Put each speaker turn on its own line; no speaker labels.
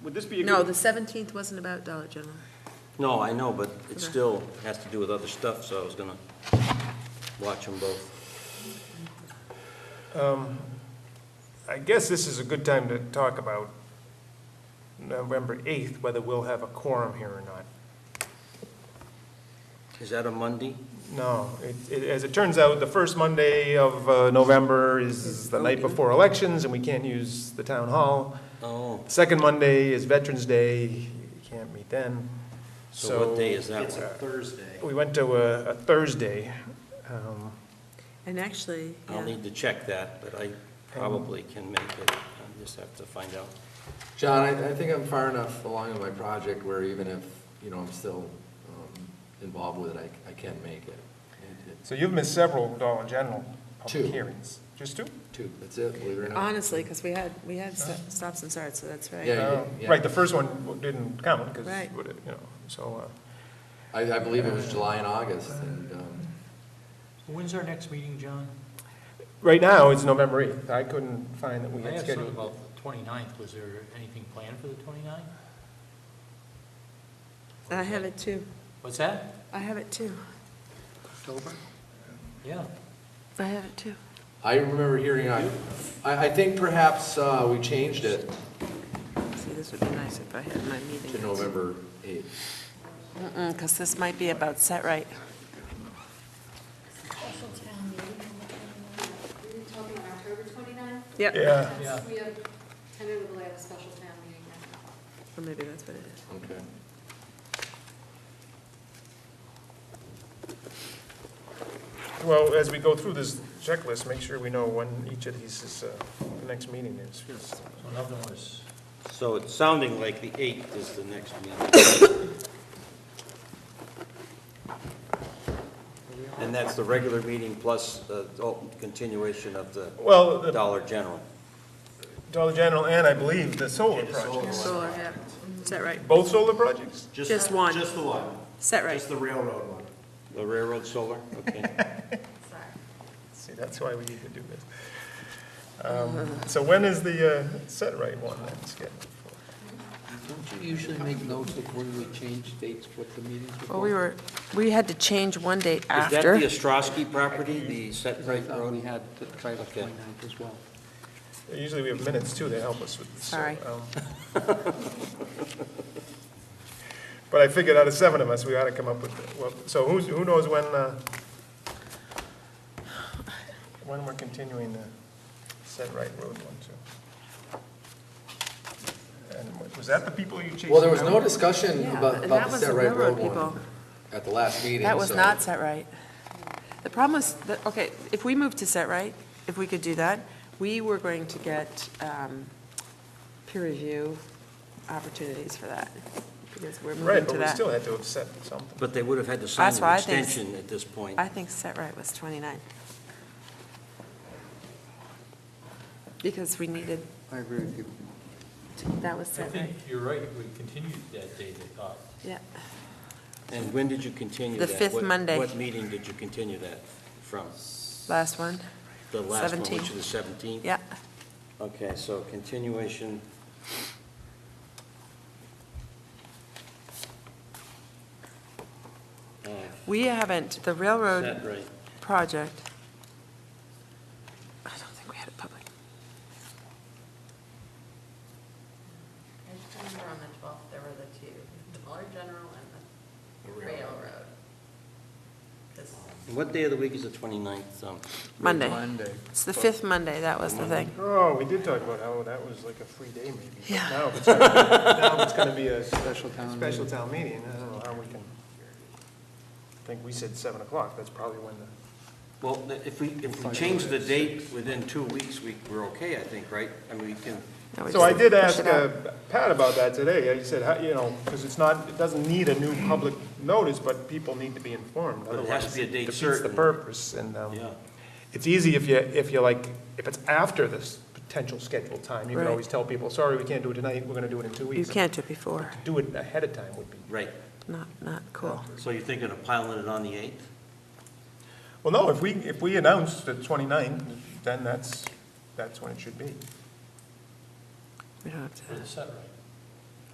Would this be a good?
No, the 17th wasn't about Dollar General.
No, I know, but it
Okay.
still has to do with other stuff, so I was gonna watch them both.
I guess this is a good time to talk about November 8th, whether we'll have a quorum here or not.
Is that a Monday?
No, it- it- as it turns out, the first Monday of uh, November is the night before elections, and we can't use the town hall.
Oh,
Second Monday is Veterans Day, you can't meet then.
so what day is that
It's a
one?
Thursday.
We went to a a Thursday. um,
And actually,
I'll
yeah,
need to check that, but I probably can make it. I just have to find out.
John, I, I think I'm far enough along in my project where even if, you know, I'm still um, involved with it, I, I can make it. It- it-
So you've missed several Dollar General
Two.
public hearings. Just two?
Two, that's it, believe it or not.
honestly, because we had, we had sto- stops and starts, so that's right.
Yeah,
Oh,
yeah.
Right, the first one didn't count, because,
Right.
you know, so, uh,
I, I believe it was July and August, and, um,
When's our next meeting, John?
uh, right now, it's November 8th. I couldn't find that we
I
had
have something
scheduled.
about the 29th. Was there anything planned for the 29th?
I have it too.
What's that?
I have it too.
October? Yeah.
I have it too.
I remember hearing, I, I I think perhaps uh, we changed it
See, this would be nice if I had my meeting.
to November 8th.
Because this might be about set right.
special town meeting. We were talking about October 29th.
Yep.
Yeah.
Yeah.
We have tentatively have a special town meeting. now.
Or maybe that's what it is.
Okay.
Well, as we go through this checklist, make sure we know when each of these is, uh, the next meeting is.
So nothing was,
So it's sounding like the 8th is the next meeting. And that's the regular meeting plus the continuation of the
Well, the
Dollar General.
Dollar General and I believe the solar project.
Solar, yeah. Set right.
Both solar projects?
Just one.
Just the one,
Set right.
just the railroad one.
The railroad solar, okay.
Sorry.
See, that's why we need to do this. Um, So when is the uh, set right one then scheduled for?
Don't you usually make notes of when we change dates, what the meetings were?
Well, we were, we had to change one date
Is that the
after.
Ostrowski property, the set
I
right
thought
road?
we had the Title
Okay.
29 as well.
Usually we have minutes too that help us with this. so,
Sorry.
um, But I figured out of seven of us, we ought to come up with, well, so who's, who knows when, uh, when we're continuing the set right road one too? And was that the people you chased?
Well, there was
down?
no discussion
Yeah,
about,
and
about
that
the
was the
Set Right Road
railroad
one
people.
at the last meeting,
That was
so-
not set right. The problem was, that- okay, if we move to set right, if we could do that, we were going to get um, peer review opportunities for that, because we're
Right,
moving
but
to
we
that.
still had to have set something.
But they would have had to sign
That's why
an
I think-
extension at this point.
I think set right was 29. Because we needed,
I agree with you.
to- that was
I
set right,
think you're right, we continued that day, they thought.
yeah.
And when did you continue
The
that?
fifth
What-
Monday.
What meeting did you continue that from?
Last one,
The last one, which
17th.
is the 17th?
yeah.
Okay, so continuation. of
We haven't, the railroad
Uh, Set right.
project. I don't think we had a public.
I just remember on the twelfth, there were the two, the Dollar General and the railroad. 'Cause
And What day of the week is the 29th? um,
Monday.
Monday.
It's the fifth Monday, that was the thing.
Oh, we did talk about how that was like a free day maybe. but
Yeah.
Now if it's gonna- now if it's going to be a
Special town
special
meeting.
town meeting, I don't know how we can, I think we said 7 o'clock, that's probably when the,
Well, th- if we, if we change the date within two weeks, we, we're okay, I think, right? I mean, we can,
No, we
so I
just
did
push
ask
it out.
uh, Pat about that today. He said, how- you know, because it's not, it doesn't need a new public notice, but people need to be informed.
But it has to
otherwise
be a date
Defeats the
certain.
purpose, and um,
yeah.
it's easy if you, if you like, if it's after this potential scheduled time, you can
Right.
always tell people, sorry, we can't do it tonight, we're going to do it in two
You
weeks.
can't do it before,
Do it ahead of time would be
Right.
not, not cool.
So you're thinking of piling it on the 8th?
Well, no, if we, if we announce the 29th, then that's, that's when it should be.
We don't have to.
For the set right.